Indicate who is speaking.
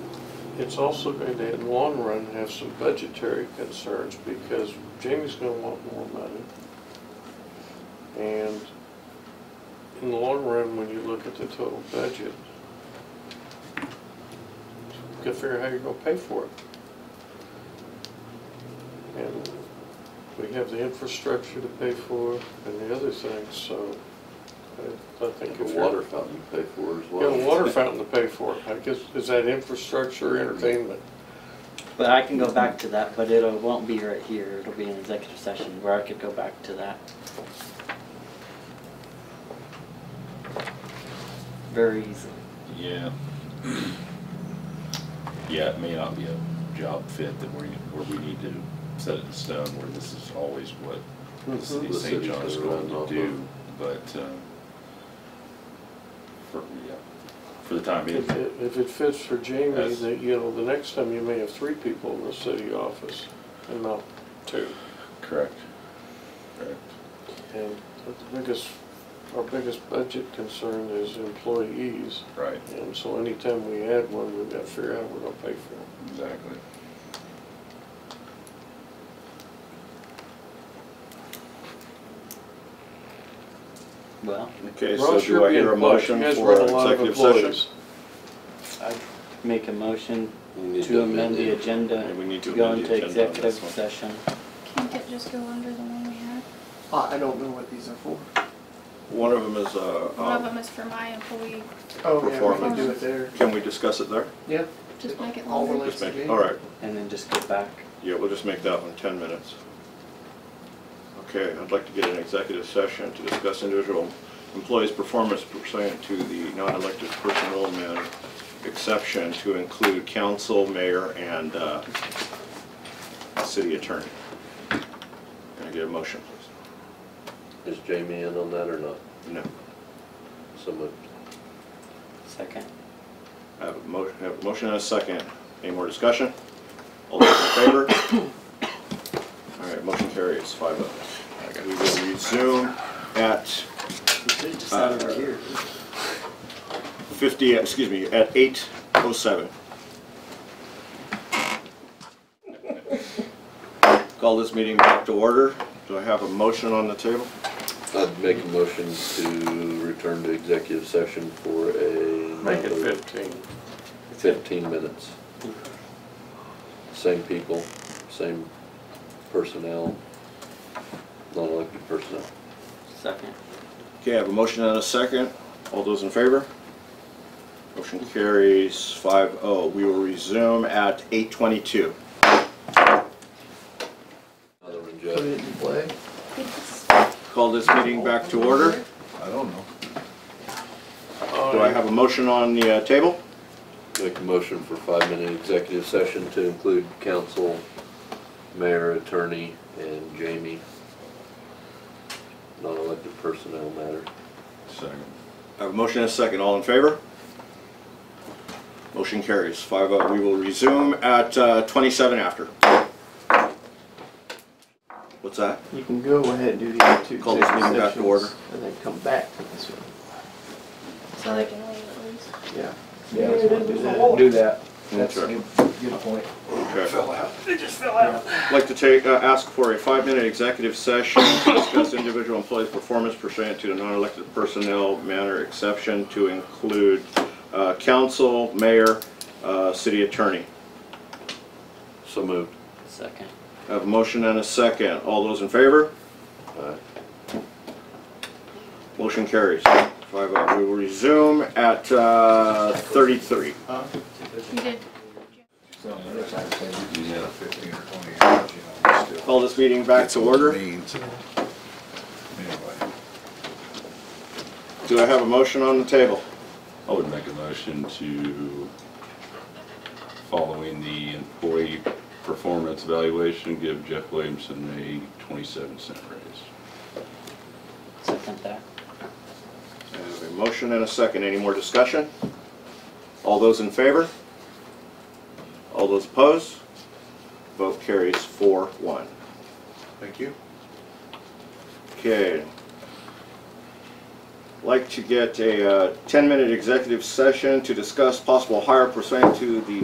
Speaker 1: it's also going to, in the long run, have some budgetary concerns because Jamie's going to want more money. And in the long run, when you look at the total budget, you gotta figure out how you're gonna pay for it. And we have the infrastructure to pay for and the other things, so I I think if
Speaker 2: The
Speaker 1: you're.
Speaker 2: water fountain you pay for as
Speaker 1: You
Speaker 2: well.
Speaker 1: got a water fountain to pay for, I guess, is that infrastructure, entertainment?
Speaker 3: But I can go back to that, but it'll, won't be right here, it'll be an executive session where I could go back to that. Very easily.
Speaker 4: Yeah. Yeah, it may not be a job fit that we, where we need to set it in stone, where this is always what
Speaker 1: Mm-hmm.
Speaker 4: the city
Speaker 2: The
Speaker 4: of St.
Speaker 2: city's
Speaker 4: John is
Speaker 2: gonna
Speaker 4: going
Speaker 2: run off
Speaker 4: to
Speaker 2: of.
Speaker 4: do, but, um, for, yeah, for the time being,
Speaker 1: If it- if it fits for Jamie,
Speaker 4: That's-
Speaker 1: that, you know, the next time you may have three people in the city office and not two.
Speaker 4: correct. Correct.
Speaker 1: And the biggest, our biggest budget concern is employees.
Speaker 4: Right,
Speaker 1: And so anytime we add one, we've got to figure out how we're going to pay for it.
Speaker 4: exactly.
Speaker 3: Well,
Speaker 2: Okay, so
Speaker 1: Ross,
Speaker 2: do
Speaker 1: you're
Speaker 2: I hear
Speaker 1: being
Speaker 2: a
Speaker 1: plucked.
Speaker 2: motion
Speaker 1: You guys
Speaker 2: for
Speaker 1: run a lot of
Speaker 2: executive session?
Speaker 1: employees.
Speaker 3: I make a motion
Speaker 2: We need
Speaker 3: to amend the agenda,
Speaker 2: Yeah, we need
Speaker 3: to
Speaker 2: to
Speaker 3: go
Speaker 2: amend the
Speaker 3: into
Speaker 2: agenda on
Speaker 3: executive
Speaker 2: this one.
Speaker 3: session.
Speaker 5: Can't it just go under the one we have?
Speaker 6: I I don't know what these are for.
Speaker 2: Oh, One of them is, uh,
Speaker 4: Oh.
Speaker 5: One of
Speaker 2: um,
Speaker 5: them is for my employee,
Speaker 6: Oh, yeah, we can
Speaker 2: Performance.
Speaker 6: do it there.
Speaker 2: can we discuss it there?
Speaker 6: Yeah.
Speaker 5: just make it
Speaker 6: All
Speaker 5: longer.
Speaker 6: related.
Speaker 2: Just
Speaker 6: Let's
Speaker 2: make-
Speaker 6: do.
Speaker 2: All right,
Speaker 3: And then just go back.
Speaker 2: yeah, we'll just make that one 10 minutes. Okay, I'd like to get an executive session to discuss individual employees' performance pursuant to the non-elected personnel man exception to include council, mayor, and uh, city attorney. Can I get a motion, please?
Speaker 7: Is Jamie in on that or not?
Speaker 2: No.
Speaker 7: So moved.
Speaker 3: Second.
Speaker 2: I have a motion, have a motion and a second. Any more discussion? All those in favor? All right, motion carries, five oh. We will resume at
Speaker 3: Just out of here.
Speaker 2: fifty, excuse me, at eight oh seven. Call this meeting back to order. Do I have a motion on the table?
Speaker 7: I'd make a motion to return to executive session for a.
Speaker 1: Make it 15.
Speaker 7: Fifteen minutes. Same people, same personnel, non-elected personnel.
Speaker 3: Second.
Speaker 2: Okay, I have a motion and a second. All those in favor? Motion carries five oh. We will resume at eight twenty-two.
Speaker 7: Another one,
Speaker 6: Put
Speaker 7: Jeff.
Speaker 6: it in play.
Speaker 2: Call this meeting back to order. Do I have a motion on the uh, table?
Speaker 7: Make a motion for five-minute executive session to include council, mayor, attorney, and Jamie. Non-elected personnel matter.
Speaker 4: Second.
Speaker 2: I have a motion and a second. All in favor? Motion carries five oh. We will resume at uh, twenty-seven after. What's that?
Speaker 6: You can go ahead and do the other two
Speaker 2: Call this meeting
Speaker 6: executive
Speaker 2: back to order.
Speaker 6: sessions and then come back to this one.
Speaker 5: So they can leave at least.
Speaker 6: Yeah. Yeah, let's wanna do that. Do that.
Speaker 2: That's right.
Speaker 6: Good point.
Speaker 2: Okay. Fell out. They just fell out. Like to take, uh, ask for a five-minute executive session to discuss individual employees' performance pursuant to the non-elected personnel manner exception to include uh, council, mayor, uh, city attorney.
Speaker 7: So moved.
Speaker 3: Second.
Speaker 2: I Have a motion and a second. All those in favor?
Speaker 7: Aye.
Speaker 2: Motion carries. Five oh. We will resume at uh, 33.
Speaker 5: You did
Speaker 4: Yeah.
Speaker 8: fifteen or twenty hours, you know, we still.
Speaker 2: Call this meeting back to order.
Speaker 8: Means, and- anyway.
Speaker 2: Do I have a motion on the table?
Speaker 4: I would make a motion to, following the employee performance evaluation, give Jeff Williamson a twenty-seven cent raise.
Speaker 3: Second that.
Speaker 2: I have a motion and a second. Any more discussion? All those in favor? All those opposed? Vote carries four one.
Speaker 8: Thank you.
Speaker 2: Okay. uh, Like to get a ten-minute executive session to discuss possible hire pursuant to the